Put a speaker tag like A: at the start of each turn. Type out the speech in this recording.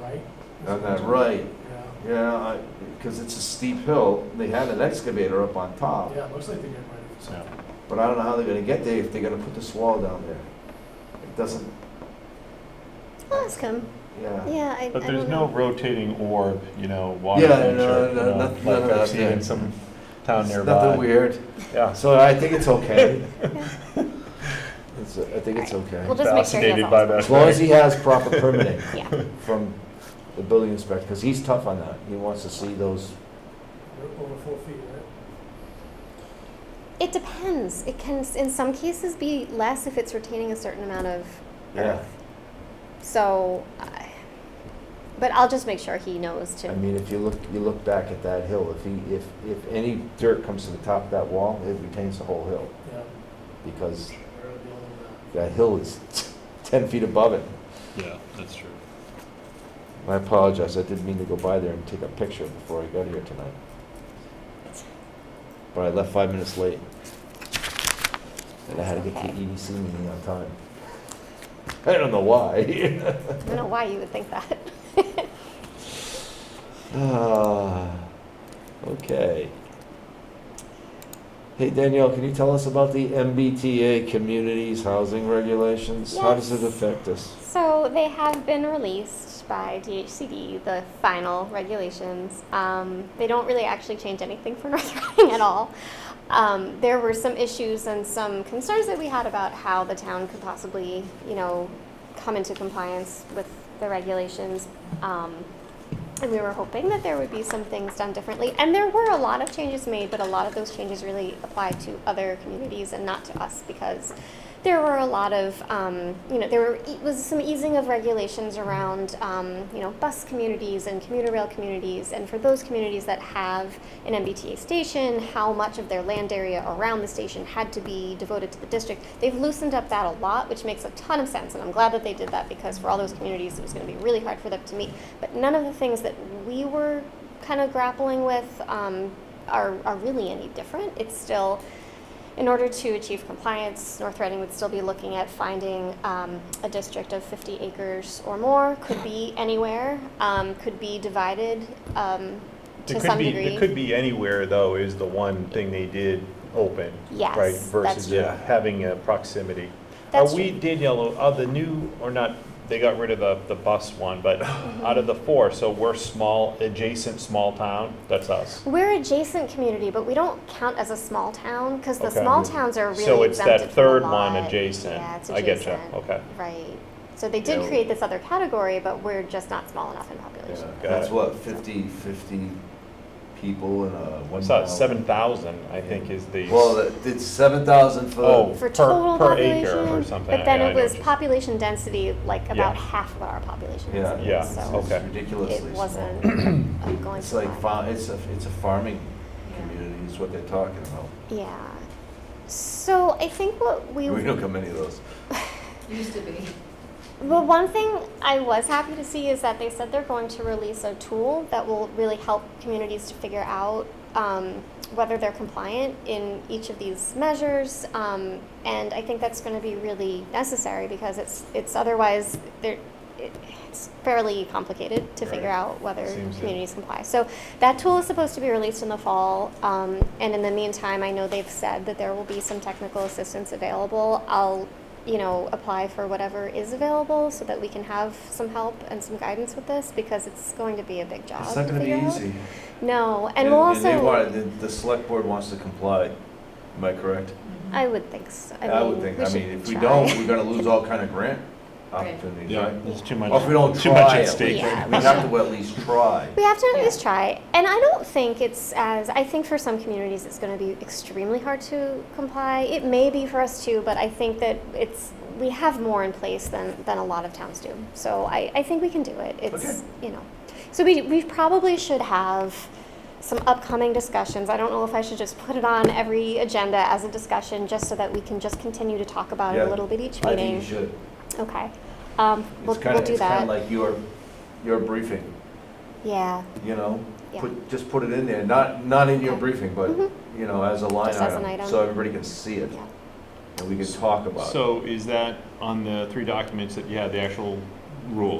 A: right?
B: On that right,
A: Yeah,
B: yeah, because it's a steep hill. They had an excavator up on top,
A: yeah, it looks like they're getting ready for something.
B: but I don't know how they're gonna get there if they're gonna put this wall down there. It doesn't,
C: Ask him.
B: yeah.
C: Yeah, I,
D: But
C: I
D: there's
C: don't
D: no
C: know.
D: rotating orb, you know, water
B: Yeah,
D: feature,
B: no,
D: you
B: no,
D: know,
B: nothing- none
D: like
B: of that
D: I've seen in
B: there.
D: some town
B: It's
D: nearby.
B: Nothing weird.
D: Yeah.
B: So I think it's okay. It's, I think it's okay.
C: We'll just make sure he has
D: Fascinated
C: all
D: by
C: the-
D: that.
B: As long as he has proper permitting
C: Yeah,
B: from the building inspector, because he's tough on that. He wants to see those,
A: They're over four feet, right?
C: it depends. It can, s- in some cases, be less if it's retaining a certain amount of
B: yeah.
C: earth. So, I- but I'll just make sure he knows
B: I
C: to.
B: mean, if you look, you look back at that hill, if he, if, if any dirt comes to the top of that wall, it retains the whole hill,
A: Yeah.
B: because
A: They're the only uh, one.
B: that hill is ten feet above it.
E: Yeah, that's true.
B: I apologize, I didn't mean to go by there and take a picture before I got here tonight. But I left five minutes late. And I had to get to the EDC meeting on time. I don't know why.
C: I don't know why you would think that.
B: Ah, Okay. Hey Danielle, can you tell us about the MBTA Communities Housing Regulations? How does it
C: Yes.
B: affect us?
C: So they have been released by DHCD, the final regulations. Um, they don't really actually change anything for North Reading at all. Um, there were some issues and some concerns that we had about how the town could possibly, you know, come into compliance with the regulations. Um, and we were hoping that there would be some things done differently. And there were a lot of changes made, but a lot of those changes really apply to other communities and not to us because there were a lot of, um, you know, there were, it was some easing of regulations around, um, you know, bus communities and commuter rail communities. And for those communities that have an MBTA station, how much of their land area around the station had to be devoted to the district. They've loosened up that a lot, which makes a ton of sense. And I'm glad that they did that because for all those communities, it was going to be really hard for them to meet. But none of the things that we were kind of grappling with um, are, are really any different. It's still, in order to achieve compliance, North Reading would still be looking at finding um, a district of 50 acres or more, could be anywhere, um, could be divided um, to
D: It
C: some
D: could be,
C: degree.
D: it could be anywhere though, is the one thing they did open.
C: Yes,
D: Right,
C: that's
D: versus it
B: true.
D: having a proximity.
C: That's
D: Are we, Danielle, are the new, or not, they got rid of the, the bus one, but
C: Mm-hmm.
D: out of the four, so we're small, adjacent, small town, that's us.
C: We're adjacent community, but we don't count as a small town because the
D: Okay.
C: small towns are really
D: So it's that
C: exempted from a
D: third one
C: lot.
D: adjacent.
C: Yeah, it's
D: I Oh. get you,
C: adjacent.
D: okay.
C: Right. So they did
B: Yeah.
C: create this other category, but we're just not small enough in population.
B: That's
D: it.
B: what, 50, 50 people in a one
D: What's
B: thousand?
D: that, seven thousand, I think is the.
B: Well, that- it's seven thousand
D: Oh.
B: for,
C: For
D: Per-
C: total
D: per
C: population,
D: acre or something,
C: but then
D: yeah, I
C: it
D: know
C: was
D: what you-
C: population density, like about
D: Yeah.
C: half what our population
B: Yeah.
C: is.
D: Yeah,
C: So
B: it's
D: okay.
C: it
B: ridiculously small.
C: wasn't a going.
B: It's like,
C: concern.
B: fa- it's a, it's a farming community is what they're talking about.
C: Yeah. So I think what we
B: We don't get many of those.
F: Used to be.
C: Well, one thing I was happy to see is that they said they're going to release a tool that will really help communities to figure out um, whether they're compliant in each of these measures. Um, and I think that's going to be really necessary because it's it's otherwise they're, it, it's fairly complicated to
D: Right.
C: figure out whether
D: Seems to-
C: communities comply. So that tool is supposed to be released in the fall. Um, and in the meantime, I know they've said that there will be some technical assistance available. I'll, you know, apply for whatever is available so that we can have some help and some guidance with this because it's going to be a big job.
B: It's not
C: to
B: gonna be
C: figure out.
B: easy.
C: No, and, we'll also.
B: they want, the, the select board wants to comply, am I correct?
C: I would think so. I, mean,
B: would think,
C: we
B: I
C: should
B: mean, if we
C: try.
B: don't, we're gonna lose all kind of grant
F: Right.
B: opportunities,
E: Yeah,
B: right?
D: There's too much.
B: Or if we don't
D: Too much
B: try
D: at
B: it, we
D: stake.
C: Yeah.
B: we have to at least try.
C: We have to at
F: Yeah.
C: least try. And I don't think it's as, I think for some communities it's going to be extremely hard to comply. It may be for us too, but I think that it's, we have more in place than, than a lot of towns do. So I, I think we can do it. It's, you know. So we, we probably should have some upcoming discussions. I don't know if I should just put it on every agenda as a discussion just so that we can just continue to talk about it
B: Yeah.
C: a little bit each
B: I think
C: meeting.
B: you should.
C: Okay. Um, we'll,
B: It's kind
C: we'll
B: of,
C: do
B: it's kind
C: that.
B: of like your, your briefing,
C: yeah.
B: you know?
C: Yeah.
B: Put, just put it in there, not, not in your
C: Okay.
B: briefing, but,
C: Mhm.
B: you know, as a line
C: Just as an
B: item,
C: item.
B: so everybody can see it,
C: Yeah.
B: and we can talk about it.
D: So is that on the three documents that you had, the actual rule?